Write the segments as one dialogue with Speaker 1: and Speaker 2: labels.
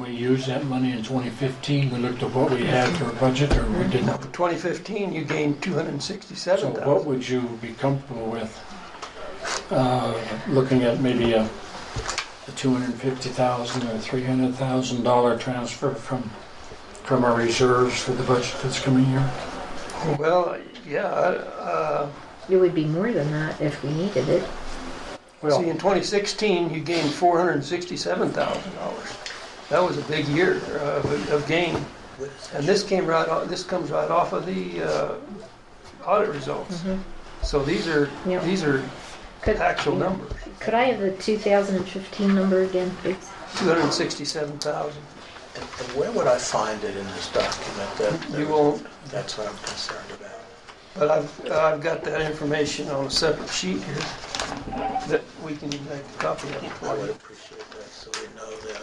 Speaker 1: we used that money in 2015, we looked at what we had for a budget or we
Speaker 2: Now,
Speaker 1: didn't.
Speaker 2: for 2015, you gained
Speaker 1: So what
Speaker 2: 267,000.
Speaker 1: would you be comfortable with, uh, looking at maybe a a 250,000 or 300,000 dollar transfer from, from our reserves for the budget that's coming here?
Speaker 2: Well, yeah, uh,
Speaker 3: It would be more than that if we needed it.
Speaker 2: see, in 2016, you gained $467,000. That was a big year uh, of of gain. And this came right, off- this comes right off of the uh, audit results. So these are,
Speaker 3: Yeah.
Speaker 2: these are
Speaker 3: Could-
Speaker 2: actual numbers,
Speaker 3: Could I have the 2015 number again, please?
Speaker 2: 267,000.
Speaker 4: And and where would I find it in this document? That-
Speaker 2: You won't,
Speaker 4: That's what I'm concerned about.
Speaker 2: but I've, I've got that information on a separate sheet here that we can make a copy of
Speaker 4: I
Speaker 2: for
Speaker 4: would
Speaker 2: you.
Speaker 4: appreciate that, so we know that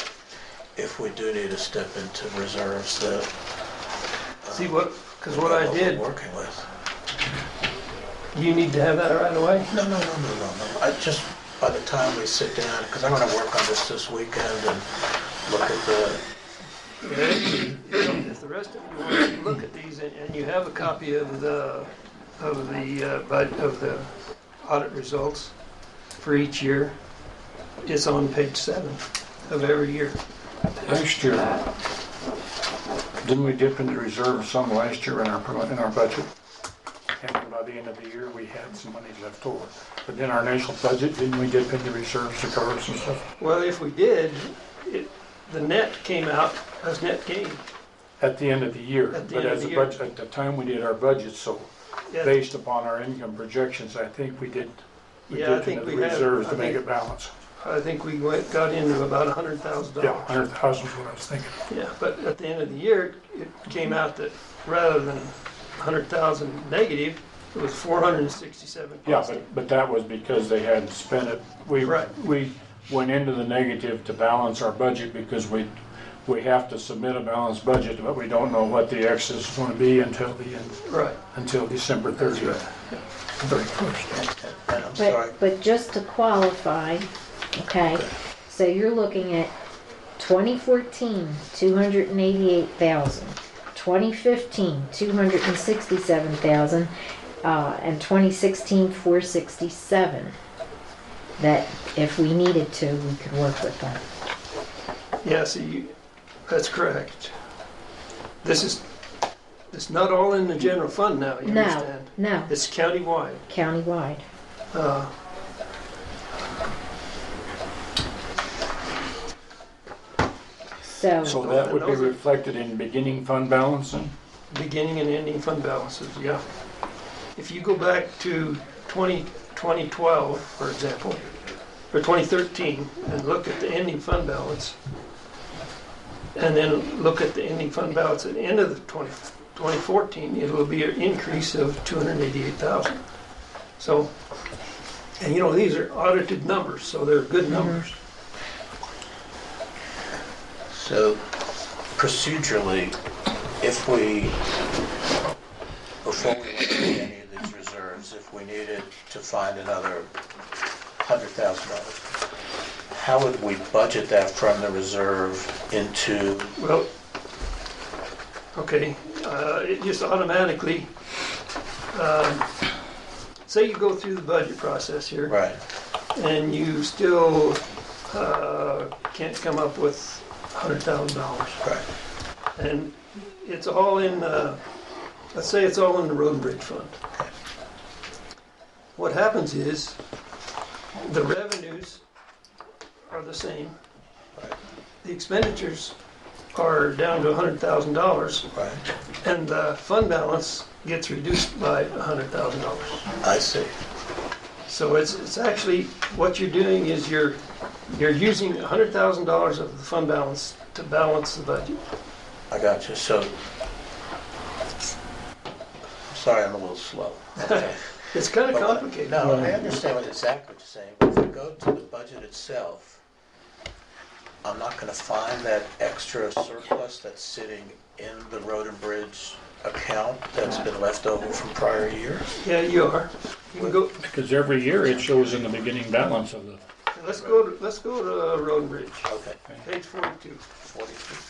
Speaker 4: if we do need to step into reserves, that... um,
Speaker 2: See what, because
Speaker 4: we
Speaker 2: what
Speaker 4: know
Speaker 2: I
Speaker 4: we're
Speaker 2: did,
Speaker 4: Working with.
Speaker 2: you need to have that right away.
Speaker 4: No, no, no, no, no, no. I just, by the time we sit down, because I'm going to work on this this weekend and look at the,
Speaker 2: If the rest of you want to look at these and- and you have a copy of the, of the, uh, bud- of the audit results for each year, it's on page seven of every year.
Speaker 1: Last year, didn't we dip into reserve some last year in our, in our budget? And then by the end of the year, we had some money left over. But in our initial budget, didn't we dip into reserves to cover some stuff?
Speaker 2: Well, if we did, it, the net came out as net gain.
Speaker 1: At the end of the year.
Speaker 2: At the
Speaker 1: But
Speaker 2: end of
Speaker 1: as
Speaker 2: the
Speaker 1: a
Speaker 2: year.
Speaker 1: budget, at the time we did our budget, so
Speaker 2: Yeah,
Speaker 1: based upon our income projections, I think we did, we
Speaker 2: Yeah, I
Speaker 1: dipped
Speaker 2: think
Speaker 1: into the
Speaker 2: we have.
Speaker 1: reserves
Speaker 2: I
Speaker 1: to make
Speaker 2: think-
Speaker 1: it balance.
Speaker 2: I think we went, got into about a hundred thousand
Speaker 1: Yeah,
Speaker 2: dollars.
Speaker 1: 100,000 is what I was thinking.
Speaker 2: Yeah, but at the end of the year, it came out that rather than a hundred thousand negative, it was four hundred and sixty-seven
Speaker 1: Yeah,
Speaker 2: positive.
Speaker 1: but, but that was because they hadn't spent it. We,
Speaker 2: Right.
Speaker 1: we went into the negative to balance our budget because we, we have to submit a balanced budget, but we don't know what the excess is gonna be until the, end
Speaker 2: Right.
Speaker 1: until December thirtieth. Thirty-first.
Speaker 4: and- and I'm sorry,
Speaker 3: But, but just to qualify, okay, so you're looking at 2014, 288,000, 2015, 267,000, uh, and 2016, 467. That if we needed to, we could work with that.
Speaker 2: Yeah, so you, that's correct. This is, it's not all in the general fund now, you
Speaker 3: No,
Speaker 2: understand?
Speaker 3: no,
Speaker 2: It's countywide.
Speaker 3: countywide.
Speaker 2: Uh,
Speaker 1: So
Speaker 3: So,
Speaker 1: that would be reflected in beginning fund balancing?
Speaker 2: beginning and ending fund balances, yeah. If you go back to 20, 2012, for example, or 2013, and look at the ending fund balance, and then look at the ending fund balance at the end of the 20 2014, it will be an increase of 288,000. So, and you know, these are audited numbers, so they're good numbers.
Speaker 4: so procedurally, if we, before we went into any of these reserves, if we needed to find another $100,000, how would we budget that from the reserve into
Speaker 2: Well, okay, uh, it just automatically, um, say you go through the budget process here,
Speaker 4: Right,
Speaker 2: and you still uh, can't come up with $100,000.
Speaker 4: right.
Speaker 2: And it's all in, uh, let's say it's all in the road and bridge fund. What happens is, the revenues are the same.
Speaker 4: Right.
Speaker 2: The expenditures are down to $100,000,
Speaker 4: Right,
Speaker 2: and the fund balance gets reduced by $100,000.
Speaker 4: I see.
Speaker 2: So it's, it's actually, what you're doing is you're, you're using $100,000 of the fund balance to balance the budget.
Speaker 4: I got you, so. Sorry, I'm a little slow. Okay.
Speaker 2: It's kind of
Speaker 4: But what-
Speaker 2: complicated.
Speaker 4: No, I understand what exactly what you're saying, but if we go to the budget itself, I'm not gonna find that extra surplus that's sitting in the road and bridge account that's been left over from prior years.
Speaker 2: Yeah, you are. You can go,
Speaker 1: Because every year it shows in the beginning balance of the,
Speaker 2: let's go, to- let's go to Road and Bridge,
Speaker 4: Okay,
Speaker 2: page forty-two.
Speaker 4: forty-two.